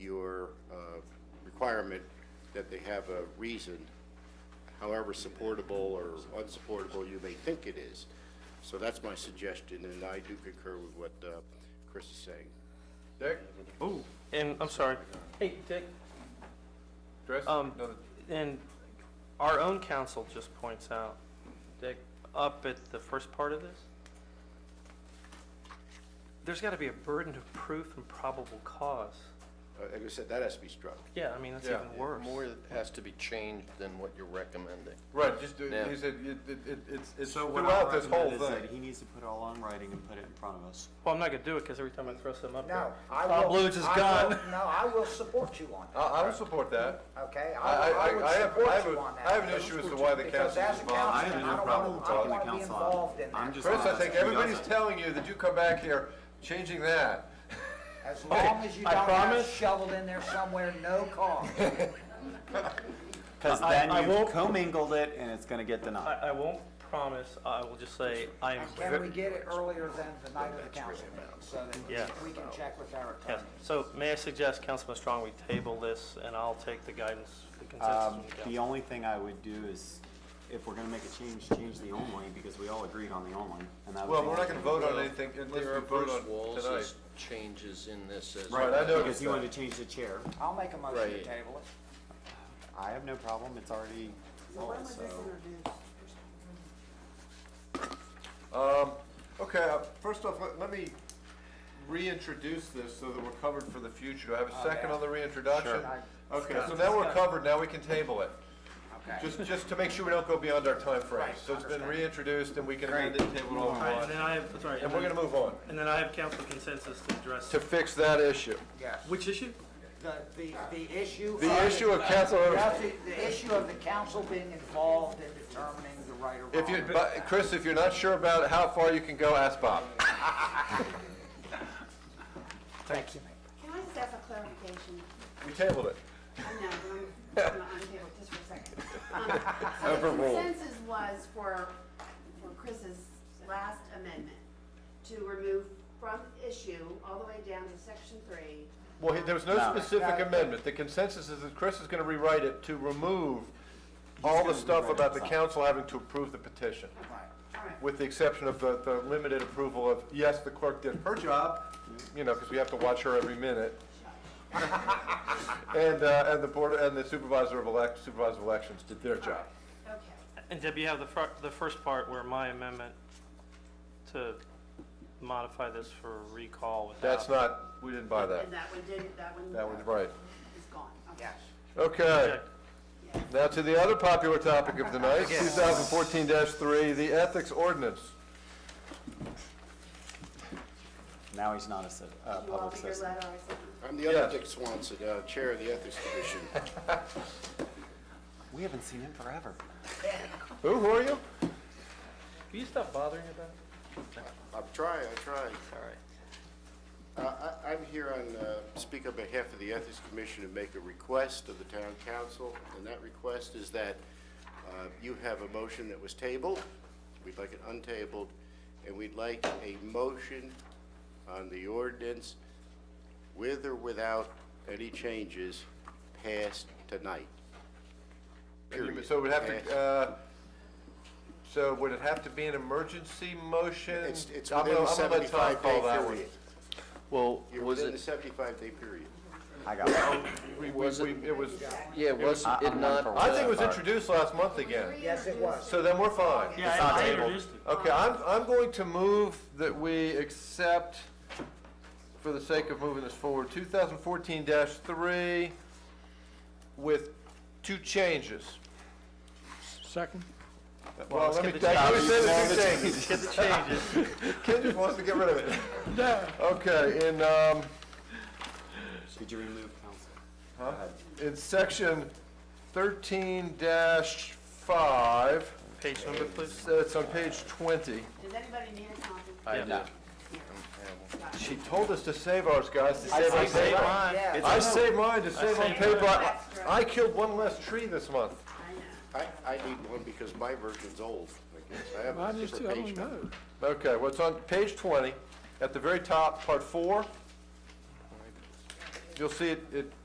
uh, requirement that they have a reason, however supportable or unsupportable you may think it is. So that's my suggestion, and I do concur with what uh, Chris is saying. Dick, Ooh, and I'm sorry. Hey, Dick, Chris? um, No, and our own council just points out, Dick, up at the first part of this, there's gotta be a burden of proof and probable cause. Uh, Like I said, that has to be struck. Yeah, I mean, that's Yeah. even worse. More has to be changed than what you're recommending. Right, just, uh, Yeah. he said, it- it- it- it's it's So what I throughout this whole recommend is that thing. he needs to put it all on writing and put it in front of us. Well, I'm not gonna do it, cause every time I throw something up No, there, I will. Bob Lutz is I gone. will- No, I will support you on I, that, I would support that. okay? Uh, I, I, I will- I I have, I would have, support you a- on that. I have an issue as to why the Because council as is a involved. I have I no don't problem wanna- I talking to wanna be council. involved in I'm that. just Chris, I honest. think He everybody's doesn't. telling you that you come back here changing that. As long as you I don't have promise- shoveled in there somewhere, no cause. Because I- I- I then you've won't- commingled it and it's gonna get I, denied. I won't promise, I will just say, I'm. And can we get it earlier than the night of the council meeting, so Yeah. that we can check with our Yes, attorney? so may I suggest, Councilman Strong, we table this, and I'll take the guidance, the consensus Um, from the the council. only thing I would do is, if we're gonna make a change, change the only, because we all agreed on the only, and that was. Well, the we're not only. gonna vote on anything unless There we are vote Bruce on tonight. Wallace's changes in this as. Right, I know. Because he wanted to change the chair. I'll make a motion to Right. table it. I have no problem, it's already resolved, so. Um, okay, uh, first off, let, let me reintroduce this so that we're covered for the future. Do I have a second Oh, yeah. on the reintroduction? Sure. Okay, so now we're covered, now we can table it. Okay. Just, just to make sure we don't go beyond our time frame. Right, So it's been understand. reintroduced and we can amend it, table it all we All right, and want. then I have, sorry, And we're gonna move on. and then I have council consensus to address, To fix that issue. Yes. which issue? The, the, the issue. The issue of council, Yes, The, the issue of the council being involved in determining the right or if you, wrong. but, Chris, if you're not sure about how far you can go, ask Bob. Thank you. Can I just ask a clarification? We tabled it. I know, but I'm, I'm on table just for a second. Um, so the Overruled. Consensus was for, for Chris's last amendment to remove from issue all the way down to section three. Well, he- there was no No. specific No. amendment. The consensus is that Chris is gonna rewrite it to remove all the gonna stuff rewrite about it. the council having to approve the petition, All right. with the exception of the, the limited approval of, yes, the clerk did her job, you know, because we have to watch her every minute. And, uh, and the board, and the supervisor of elect, supervisor of elections did their job. Okay, And Deb, you have the fir- the first part where my amendment to modify this for recall without. That's not, we didn't buy that. and that one didn't, that one. That one's right. Is gone, okay. Yes. Okay. Okay. Now to the other popular topic of the night, 2014-3, the ethics ordinance. Now he's not a cit- uh, You all public read your citizen. letter or something? I'm the other Yes. Dick Swanson, uh, Chair of the Ethics Commission. We haven't seen him forever. Who, who are you? Can you stop bothering about it? I'm trying, I'm trying. All right. I, I'm here on, uh, speak on behalf of the Ethics Commission and make a request of the town council, and that request is that uh, you have a motion that was tabled, we'd like it untabled, and we'd like a motion on the ordinance with or without any changes passed tonight. Period. So it would have Passed. to, uh, so would it have to be an emergency motion? It's, it's I'm within gonna- the I'm gonna let Tom 75 day call that one. period. Well, You're was within the it, 75 day period. I got it. We- we- Was it- we- It was, yeah, was I- it I'm not? for I think it uh, was introduced last month again, Yes, it was. so then we're fine. Yeah, not I- I tabled. introduced it. Okay, I'm, I'm going to move that we accept, for the sake of moving this forward, 2014-3 with two changes. Second? Well, let me, I already said the two changes. Get the changes. Ken just wants to get rid of it. Okay, in, um, Did you remove council? Go ahead. in section 13-5, Page number, please. it's it's on page 20. Does anybody need a copy? I Yeah. did. She told us to save ours, guys, to I save our saved paper. mine. Yes. I saved mine to save on saved paper. mine. I- I killed one less tree this month. I know. I, I need one because my version's old, I guess. I have a different page number. Okay, well, it's on page 20, at the very top, part four. You'll see it, it